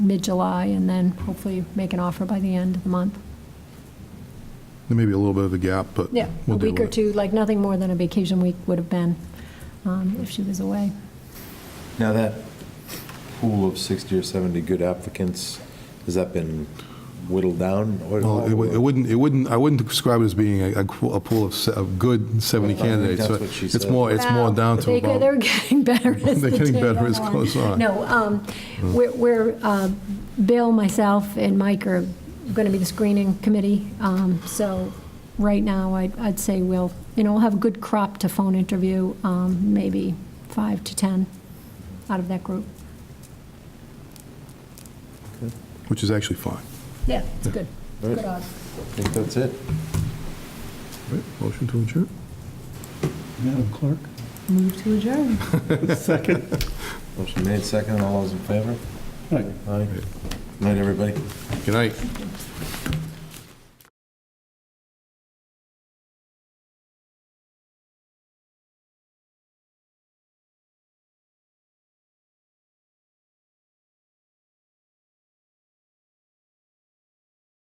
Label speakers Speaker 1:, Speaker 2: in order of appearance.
Speaker 1: mid-July and then hopefully make an offer by the end of the month.
Speaker 2: There may be a little bit of a gap, but
Speaker 1: Yeah, a
Speaker 2: we'll deal
Speaker 1: week or
Speaker 2: with it.
Speaker 1: two, like nothing more than a vacation week would have been um, if she was away.
Speaker 3: Now, that pool of 60 or 70 good applicants, has that been whittled down? or-
Speaker 2: Well, it wou- it wouldn't, it wouldn't, I wouldn't describe it as being a- a qu- a pool of, se- of good 70
Speaker 3: Well, I think
Speaker 2: candidates.
Speaker 3: that's
Speaker 2: So
Speaker 3: what she
Speaker 2: It's
Speaker 3: said.
Speaker 2: more, it's more down to
Speaker 1: They- They're
Speaker 2: about,
Speaker 1: getting better as
Speaker 2: They're
Speaker 1: the
Speaker 2: getting
Speaker 1: day
Speaker 2: better
Speaker 1: goes
Speaker 2: as Mm. goes on.
Speaker 1: No, um, we're- we're, uh, Bill, myself, and Mike are going to be the screening committee, Um, so right now, I'd I'd say we'll, you know, we'll have a good crop to phone interview, um, maybe five to 10 out of that group.
Speaker 2: which is actually fine.
Speaker 1: Yeah, it's good.
Speaker 3: Right.
Speaker 1: Good odds.
Speaker 3: I think that's it.
Speaker 2: Right, Motion to adjourn?
Speaker 4: Madam Clerk?
Speaker 5: Move to adjourn.
Speaker 4: Second.
Speaker 3: Motion made, second, all those in favor?
Speaker 4: Right.
Speaker 3: Aye. Night, everybody.
Speaker 2: Good night.